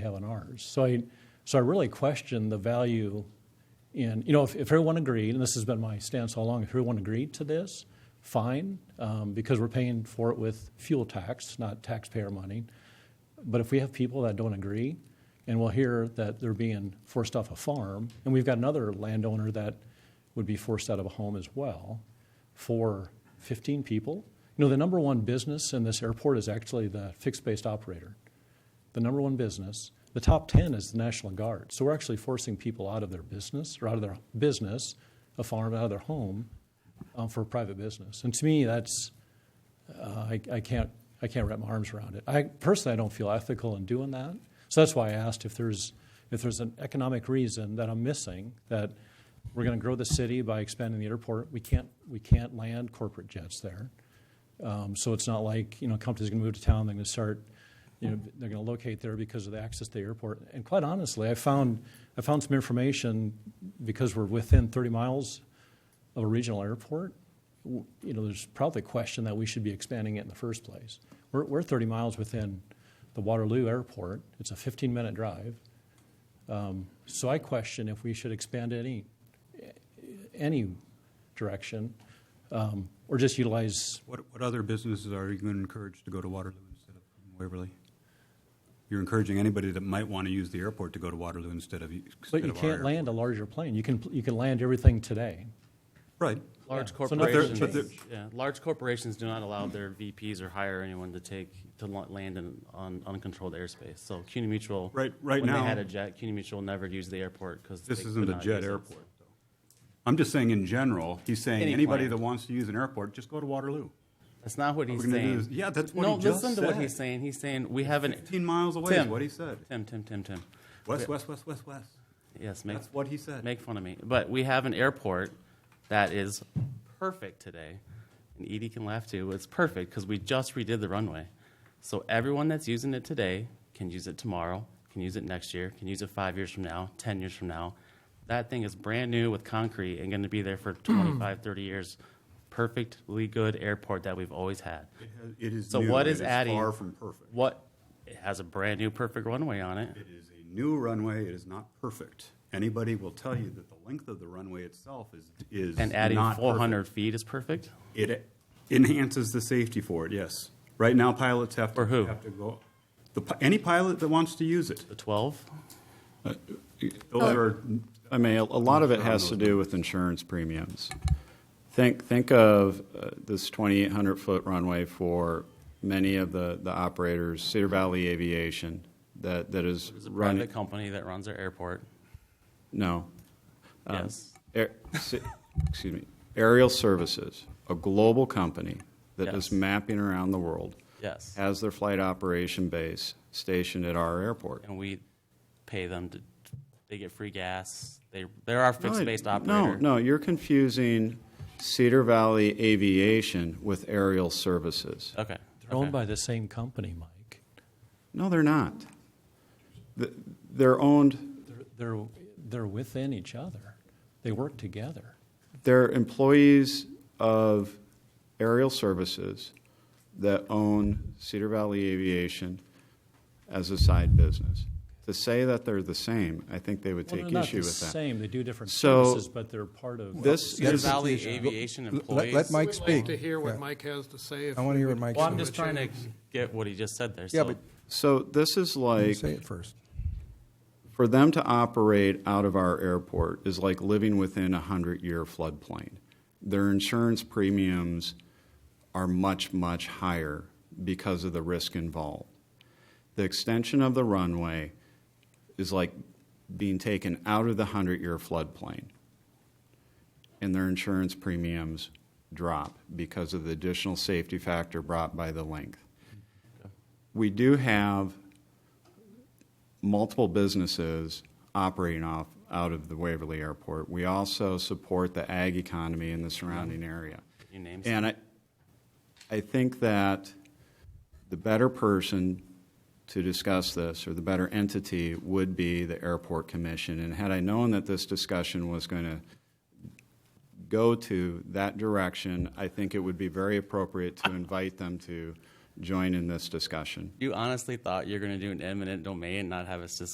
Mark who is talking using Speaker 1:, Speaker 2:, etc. Speaker 1: have in ours. So I, so I really question the value in, you know, if, if everyone agreed, and this has been my stance all along, if everyone agreed to this, fine, um, because we're paying for it with fuel tax, not taxpayer money. But if we have people that don't agree, and we'll hear that they're being forced off a farm, and we've got another landowner that would be forced out of a home as well, for 15 people. You know, the number one business in this airport is actually the fixed-based operator the number one business. The top 10 is the National Guard. So we're actually forcing people out of their business or out of their business, a farm, out of their home um, for a private business. And to me, that's, uh, I, I, can't, I can't wrap my arms around it. I personally, I don't feel ethical in doing that. So that's why I asked if there's, if there's an economic reason that I'm missing that we're going to grow the city by expanding the airport. We can't, we can't land corporate jets there. Um, so it's not like, you know, companies going to move to town, they're going to start you know, they're going to locate there because of the access to the airport. And quite honestly, I found, I found some information because we're within 30 miles of a regional airport. w- You know, there's probably a question that we should be expanding it in the first place. We're, we're 30 miles within the Waterloo Airport. It's a 15-minute drive. Um, So I question if we should expand any, any direction um, or just utilize,
Speaker 2: What, what other businesses are you going to encourage to go to Waterloo instead of Waverly? You're encouraging anybody that might want to use the airport to go to Waterloo instead of,
Speaker 1: but
Speaker 2: instead
Speaker 1: you
Speaker 2: of our
Speaker 1: can't
Speaker 2: airport.
Speaker 1: land a larger plane. You can, you can land everything today.
Speaker 2: Right.
Speaker 3: Large
Speaker 1: Yeah, so not- But they're-
Speaker 3: corporations,
Speaker 2: but
Speaker 3: yeah, large corporations do not allow their VPs or hire anyone to take, to la- land in, on uncontrolled airspace. So CUNY Mutual.
Speaker 2: Right- right
Speaker 3: When
Speaker 2: now-
Speaker 3: they had a jet, CUNY Mutual never used the airport because.
Speaker 2: This isn't a jet airport, though. I'm just saying in general, he's saying
Speaker 3: Any
Speaker 2: anybody
Speaker 3: plan.
Speaker 2: that wants to use an airport, just go to Waterloo.
Speaker 3: That's not what he's
Speaker 2: gonna do
Speaker 3: saying.
Speaker 2: is- yeah, that's what
Speaker 3: No,
Speaker 2: he just
Speaker 3: Listen to what
Speaker 2: said.
Speaker 3: he's saying. He's saying, we have an.
Speaker 2: 15 miles away is
Speaker 3: Tim.
Speaker 2: what he said.
Speaker 3: Tim, Tim, Tim, Tim.
Speaker 2: West, west, west, west, west.
Speaker 3: Yes, make,
Speaker 2: That's what he said.
Speaker 3: make fun of me. But we have an airport that is perfect today. And Edie can laugh too. It's perfect because we just redid the runway. So everyone that's using it today can use it tomorrow, can use it next year, can use it five years from now, 10 years from now. That thing is brand new with concrete and going to be there for 25, 30 years. Perfectly good airport that we've always had.
Speaker 2: It is
Speaker 3: So
Speaker 2: new.
Speaker 3: what
Speaker 2: It
Speaker 3: is adding?
Speaker 2: Far from perfect.
Speaker 3: What? It has a brand new perfect runway on it.
Speaker 2: It is a new runway, it is not perfect. Anybody will tell you that the length of the runway itself is, is
Speaker 3: And adding
Speaker 2: not perfect.
Speaker 3: 400 feet is perfect.
Speaker 2: It enhances the safety for it, yes. Right now, pilots have to.
Speaker 3: For who?
Speaker 2: Have to go, the, pi- any pilot that wants to use it.
Speaker 3: The 12?
Speaker 2: Those are,
Speaker 4: I mean, a, a lot of it has to do with insurance premiums. Think, think of uh, this 2,800 foot runway for many of the, the operators, Cedar Valley Aviation, that, that is
Speaker 3: There's a
Speaker 4: running.
Speaker 3: private company that runs our airport.
Speaker 4: No. Um,
Speaker 3: Yes.
Speaker 4: Air- si- excuse me. Aerial Services, a global company that does
Speaker 3: Yes.
Speaker 4: mapping around the world,
Speaker 3: Yes.
Speaker 4: has their flight operation base stationed at our airport.
Speaker 3: And we pay them to, they get free gas. They, they're our
Speaker 4: No,
Speaker 3: fixed based
Speaker 4: no,
Speaker 3: operator.
Speaker 4: No, you're confusing Cedar Valley Aviation with Aerial Services.
Speaker 3: Okay.
Speaker 1: They're owned
Speaker 3: okay.
Speaker 1: by the same company, Mike.
Speaker 4: No, they're not. Th- They're owned,
Speaker 1: They're, they're, they're within each other. They work together.
Speaker 4: they're employees of Aerial Services that own Cedar Valley Aviation as a side business. To say that they're the same, I think they would
Speaker 1: Well,
Speaker 4: take
Speaker 1: they're not
Speaker 4: issue
Speaker 1: the
Speaker 4: with that.
Speaker 1: Same, they do different
Speaker 4: So,
Speaker 1: services, but they're part of.
Speaker 4: This
Speaker 3: Cedar
Speaker 4: is,
Speaker 3: Valley Aviation
Speaker 5: Let-
Speaker 3: employees.
Speaker 5: Let Mike
Speaker 6: We'd like
Speaker 5: speak.
Speaker 6: to hear
Speaker 5: Yeah.
Speaker 6: what Mike has to say. if
Speaker 5: I wanna
Speaker 6: we
Speaker 5: hear what
Speaker 6: would-
Speaker 5: Mike
Speaker 3: Well, I'm
Speaker 5: So
Speaker 3: just trying to get what he just said there.
Speaker 5: Yeah,
Speaker 3: so
Speaker 5: but-
Speaker 4: so this is like.
Speaker 5: Say it first.
Speaker 4: for them to operate out of our airport is like living within a 100 year floodplain. Their insurance premiums are much, much higher because of the risk involved. The extension of the runway is like being taken out of the 100 year floodplain, and their insurance premiums drop because of the additional safety factor brought by the length. We do have multiple businesses operating off out of the Waverly Airport. We also support the ag economy in the surrounding area.
Speaker 3: you name
Speaker 4: And I, I think that the better person to discuss this, or the better entity, would be the Airport Commission. And had I known that this discussion was going to go to that direction, I think it would be very appropriate to invite them to join in this discussion.
Speaker 3: You honestly thought you're going to do an eminent domain and not have us discuss